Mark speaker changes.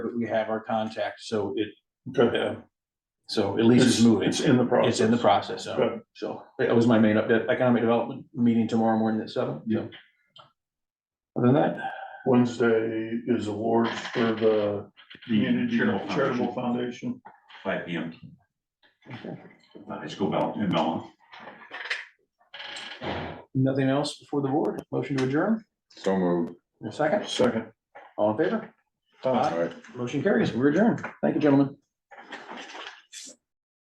Speaker 1: we have our contact, so it,
Speaker 2: Okay.
Speaker 1: uh, so at least it's moving.
Speaker 2: It's in the process.
Speaker 1: It's in the process, so,
Speaker 2: Good.
Speaker 1: so that was my main update, economic development meeting tomorrow morning at seven.
Speaker 2: Yeah.
Speaker 1: Other than that,
Speaker 2: Wednesday is awards for the Community Charitable Foundation.
Speaker 3: Five P M. High school bell in Mellon.
Speaker 1: nothing else before the board, motion to adjourn,
Speaker 4: So moved.
Speaker 1: In a second,
Speaker 2: Second.
Speaker 1: all in favor,
Speaker 2: Uh,
Speaker 4: All right.
Speaker 1: motion carries, we're adjourned, thank you, gentlemen.